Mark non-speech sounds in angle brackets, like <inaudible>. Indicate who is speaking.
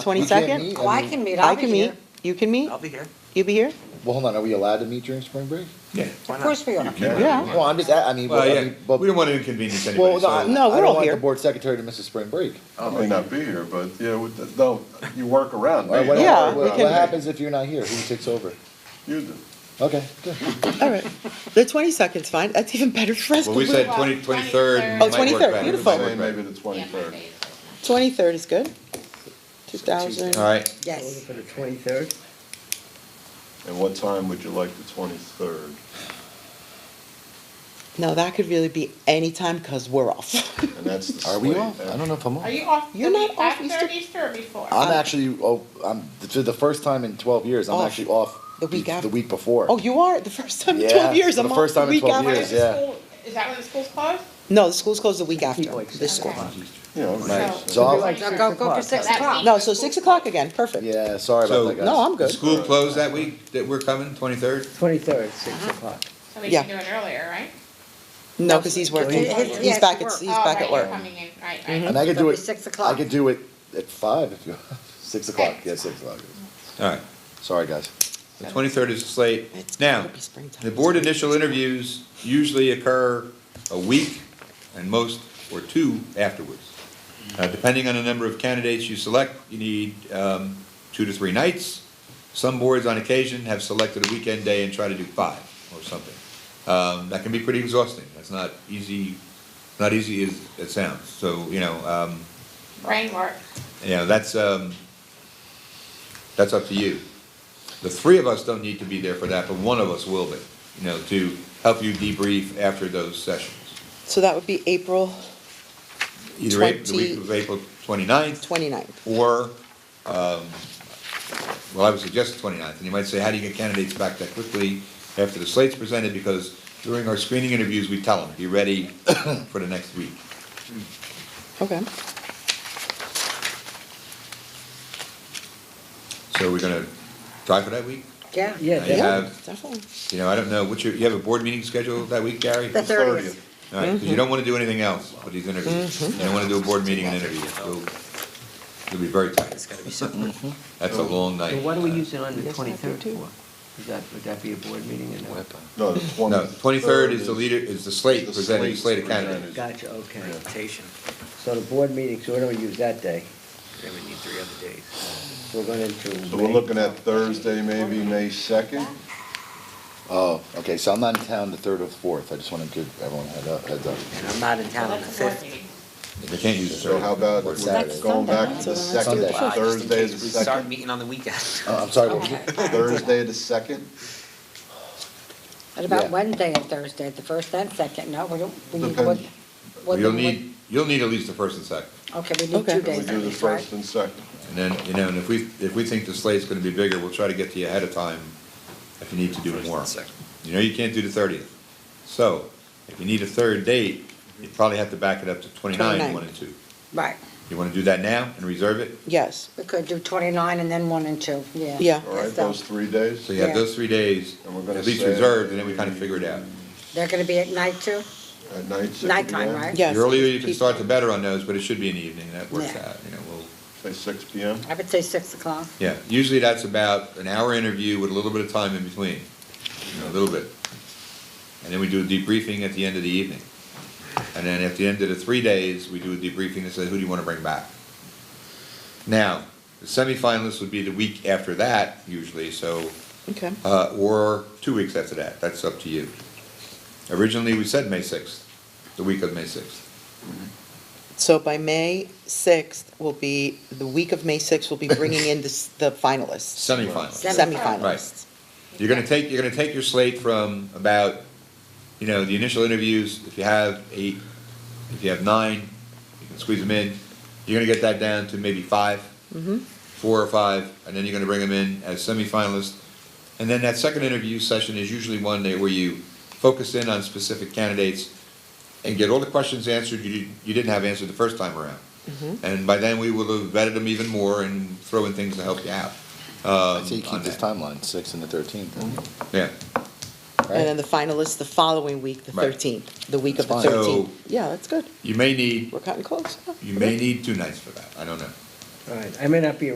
Speaker 1: Twenty
Speaker 2: We can't
Speaker 1: second?
Speaker 2: meet,
Speaker 3: Oh, I
Speaker 2: mean-
Speaker 3: can meet,
Speaker 1: I
Speaker 3: I'll be
Speaker 1: can meet,
Speaker 3: here.
Speaker 1: you can meet,
Speaker 4: I'll be here.
Speaker 1: you be here?
Speaker 2: Well, hold on, are we allowed to meet during spring break?
Speaker 5: Yeah.
Speaker 4: Why not?
Speaker 3: Of course we are.
Speaker 1: Yeah.
Speaker 2: Well, I'm just, I I mean,
Speaker 5: Well,
Speaker 2: but, I
Speaker 5: yeah,
Speaker 2: mean, but.
Speaker 5: we don't want to inconvenience anybody,
Speaker 2: Well, no, I-
Speaker 5: so.
Speaker 1: No, we're
Speaker 2: I
Speaker 1: all
Speaker 2: don't want
Speaker 1: here.
Speaker 2: the board secretary to miss a spring break.
Speaker 6: I may not be here, but yeah, we- no, you work around me.
Speaker 2: All right, what-
Speaker 6: Don't
Speaker 1: Yeah,
Speaker 2: what-
Speaker 6: worry
Speaker 2: What
Speaker 6: about
Speaker 2: what
Speaker 6: me.
Speaker 2: happens if you're not here? Who takes over?
Speaker 6: You do.
Speaker 2: Okay, good.
Speaker 1: All right. The twenty second's fine, that's even better for us.
Speaker 5: Well, we said twenty, twenty-third.
Speaker 1: Oh, 23rd, beautiful.
Speaker 6: Say Maybe the twenty-third.
Speaker 1: Twenty third is good. Two thousand.
Speaker 5: All right,
Speaker 3: Yes.
Speaker 7: For the twenty-third?
Speaker 6: And what time would you like the twenty-third?
Speaker 1: No, that could really be any time because we're off. <laughs>
Speaker 6: And that's the slate.
Speaker 2: <laughs> Are we off? I don't know if I'm off.
Speaker 8: Are you off
Speaker 1: You're
Speaker 8: the
Speaker 1: not
Speaker 8: week
Speaker 1: off
Speaker 8: after
Speaker 1: Easter?
Speaker 8: Easter Uh, or before?
Speaker 2: I'm actually, oh, I'm, for the first time in twelve years, I'm
Speaker 1: Off.
Speaker 2: actually off.
Speaker 1: The week
Speaker 2: be-
Speaker 1: after.
Speaker 2: The week before.
Speaker 1: Oh, you are, the first time in
Speaker 2: Yeah,
Speaker 1: twelve years,
Speaker 2: the
Speaker 1: I'm off
Speaker 2: first
Speaker 1: the
Speaker 2: time in
Speaker 1: week
Speaker 2: 12
Speaker 1: after.
Speaker 8: When
Speaker 2: years,
Speaker 8: is the
Speaker 2: yeah.
Speaker 8: school- Is that when the school's closed?
Speaker 1: No, the school's closed the week after, this school.
Speaker 6: Yeah, okay.
Speaker 8: Right.
Speaker 2: So, I'll-
Speaker 3: Now go, go for six
Speaker 8: That's
Speaker 3: o'clock.
Speaker 1: No, so six o'clock again, perfect.
Speaker 2: yeah, sorry about
Speaker 5: so.
Speaker 2: that, guys.
Speaker 1: No, I'm
Speaker 5: the
Speaker 1: good.
Speaker 5: School closed that week, that we're coming, twenty-third?
Speaker 7: Twenty-third, six o'clock.
Speaker 8: So we
Speaker 1: Yeah.
Speaker 8: can do it earlier, right?
Speaker 1: No, because he's working,
Speaker 3: His- his-
Speaker 1: he's
Speaker 3: yes,
Speaker 1: back
Speaker 3: he
Speaker 1: at,
Speaker 3: works.
Speaker 1: he's
Speaker 8: Oh,
Speaker 1: back
Speaker 8: right,
Speaker 1: at
Speaker 8: you're
Speaker 1: work. Mm-hmm.
Speaker 8: Coming in, right, right.
Speaker 2: And I could do
Speaker 3: That'd
Speaker 2: it.
Speaker 3: be six
Speaker 2: I
Speaker 3: o'clock.
Speaker 2: could do it at five if you, <laughs> six o'clock, yeah, six o'clock.
Speaker 5: All right,
Speaker 2: Sorry, guys.
Speaker 5: the twenty-third is the slate.
Speaker 1: It's
Speaker 5: Now,
Speaker 1: gotta be springtime.
Speaker 5: the board initial interviews usually occur a week and most, or two afterwards. Uh, depending on the number of candidates you select, you need, um, two to three nights. Some boards on occasion have selected a weekend day and try to do five or something. Um, that can be pretty exhausting. That's not easy, not easy as it sounds. So, you know, um,
Speaker 8: Brain work.
Speaker 5: you know, that's, um, that's up to you. The three of us don't need to be there for that, but one of us will be, you know, to help you debrief after those sessions.
Speaker 1: So that would be April
Speaker 5: Either April, the week of April twenty-ninth,
Speaker 1: twenty-ninth.
Speaker 5: or, um, well, I would suggest the twenty-ninth, and you might say, how do you get candidates back that quickly after the slate's presented? Because during our screening interviews, we tell them, be ready <coughs> for the next week.
Speaker 1: Okay.
Speaker 5: So we're gonna try for that week?
Speaker 3: Yeah.
Speaker 7: Yeah,
Speaker 5: You
Speaker 7: that-
Speaker 1: Yeah,
Speaker 5: have-
Speaker 1: definitely.
Speaker 5: You know, I don't know, what's your, you have a board meeting scheduled that week, Gary?
Speaker 3: The thirtieth.
Speaker 5: All right, because you don't want to do anything else with these interviews. You don't want to do a board meeting and interview. You'll you'll be very tight. That's a long night.
Speaker 7: So why
Speaker 6: uh,
Speaker 7: do we use it on the twenty-third
Speaker 1: too.
Speaker 7: for? Would that, would that be a board meeting and a?
Speaker 6: No, the twenty.
Speaker 5: No, twenty-third is the leader, is the slate
Speaker 6: The
Speaker 5: presenting,
Speaker 6: slate's
Speaker 5: slate of
Speaker 6: presented.
Speaker 5: candidates.
Speaker 7: Gotcha, okay. So the board meeting, so we don't use that day. Then we need three other days. So we're going into.
Speaker 6: So we're looking at Thursday, maybe May second?
Speaker 2: Oh, okay, so I'm not in town the third or the fourth, I just wanted to give everyone a head up, heads up.
Speaker 7: And I'm not in
Speaker 8: So
Speaker 7: town on the
Speaker 8: that's a board
Speaker 7: fifth.
Speaker 8: meeting.
Speaker 5: They can't use the
Speaker 6: So how
Speaker 5: third.
Speaker 6: about
Speaker 2: Or
Speaker 6: we're
Speaker 2: Saturday.
Speaker 6: going back to
Speaker 1: Sunday.
Speaker 6: the second,
Speaker 2: Sunday. Wow,
Speaker 6: Thursday the second,
Speaker 9: meeting on the weekend.
Speaker 2: Uh, I'm sorry, what was
Speaker 8: Okay.
Speaker 2: it?
Speaker 6: Thursday the second?
Speaker 3: What
Speaker 2: Yeah.
Speaker 3: about Wednesday and Thursday, the first and second? No, we don't, we need
Speaker 6: Depends.
Speaker 3: one. one-
Speaker 5: You'll need, you'll need at least the first and second.
Speaker 3: Okay, we need
Speaker 1: Okay.
Speaker 3: two
Speaker 1: We
Speaker 6: We
Speaker 3: days.
Speaker 6: do the
Speaker 3: notice, right?
Speaker 6: first and second.
Speaker 5: And then, you know, and if we, if we think the slate's going to be bigger, we'll try to get to you ahead of time if you need to do more. You know, you can't do the thirtieth. So if you need a third date, you probably have to back it up to twenty-nine, you
Speaker 1: 29.
Speaker 5: want to. do.
Speaker 3: Right,
Speaker 5: You want to do that now and reserve it?
Speaker 1: Yes,
Speaker 3: we could do twenty-nine and then one and two, yeah.
Speaker 1: Yeah.
Speaker 6: All right,
Speaker 3: So
Speaker 6: those three days?
Speaker 5: So you have
Speaker 3: Yeah.
Speaker 5: those three days,
Speaker 6: And we're gonna
Speaker 5: at least
Speaker 6: say-
Speaker 5: reserved, and then we kind of figure it out.
Speaker 3: They're gonna be at night too?
Speaker 6: At night, six
Speaker 3: Nighttime,
Speaker 6: PM?
Speaker 3: right?
Speaker 1: yes.
Speaker 5: The earlier you can
Speaker 1: Keep-
Speaker 5: start, the better on those, but it should be in the evening, that works
Speaker 3: Yeah.
Speaker 5: out, you know, we'll,
Speaker 6: Say six P M?
Speaker 3: I would say six o'clock.
Speaker 5: yeah. Usually that's about an hour interview with a little bit of time in between, you know, a little bit. And then we do a debriefing at the end of the evening. And then at the end of the three days, we do a debriefing and say, who do you want to bring back? Now, the semifinalists would be the week after that usually, so
Speaker 1: Okay.
Speaker 5: uh, or two weeks after that, that's up to you. Originally, we said May sixth, the week of May sixth.
Speaker 1: So by May sixth will be, the week of May sixth will be bringing in the, s- the finalists,
Speaker 5: Semifinals.
Speaker 1: semifinalists.
Speaker 5: You're gonna take, you're gonna take your slate from about, you know, the initial interviews, if you have eight, if you have nine, you can squeeze them in. You're gonna get that down to maybe 5 four or five, and then you're gonna bring them in as semifinalists. And then that second interview session is usually one day where you focus in on specific candidates and get all the questions answered you, you didn't have answered the first time around. And by then, we will have vetted them even more and throw in things to help you out.
Speaker 2: I say Uh, you
Speaker 5: on
Speaker 2: keep this
Speaker 5: that.
Speaker 2: timeline, six and the thirteenth,
Speaker 5: Yeah.
Speaker 1: Mm-hmm. And then the finalists the following week, the
Speaker 5: Right.
Speaker 1: thirteenth, the week of the
Speaker 2: That's fine.
Speaker 5: So-
Speaker 1: thirteenth. Yeah, that's good.
Speaker 5: You may need,
Speaker 1: We're cutting close.
Speaker 5: you may need two nights for that, I don't know.
Speaker 7: All right, I may not be